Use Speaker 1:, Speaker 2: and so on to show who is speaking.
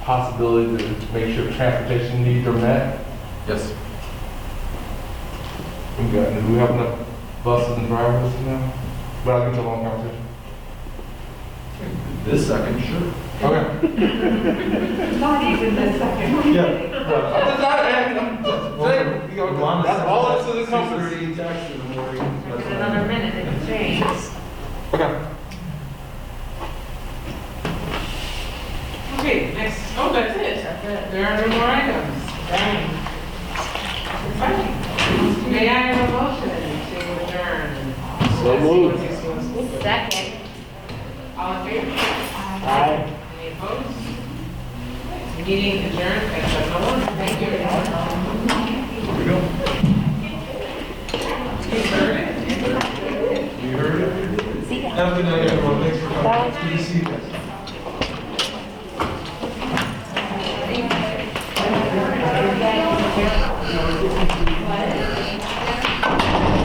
Speaker 1: possibility to make sure transportation needs are met?
Speaker 2: Yes.
Speaker 1: We got, do we have enough buses and drivers now? But I'll get to a long conversation.
Speaker 2: This second, sure.
Speaker 1: Okay.
Speaker 3: Not even the second. one.
Speaker 2: Yeah.
Speaker 1: I'm just not asking, I'm just, you know, that's all this is, this conference.
Speaker 2: Six thirty in the morning.
Speaker 3: Give it another minute, it can change.
Speaker 1: Okay.
Speaker 4: Okay, next, oh, that's it. There are no more items. Dang. We're fighting. May I have a motion to adjourn?
Speaker 2: So moved.
Speaker 3: Second.
Speaker 4: All in favor? Any opposed? Meeting adjourned at seven oh one. Thank you, everyone.
Speaker 2: Here we go.
Speaker 4: You heard it.
Speaker 2: You heard it? Have a good night, everyone. Thanks for coming. Good to see you guys.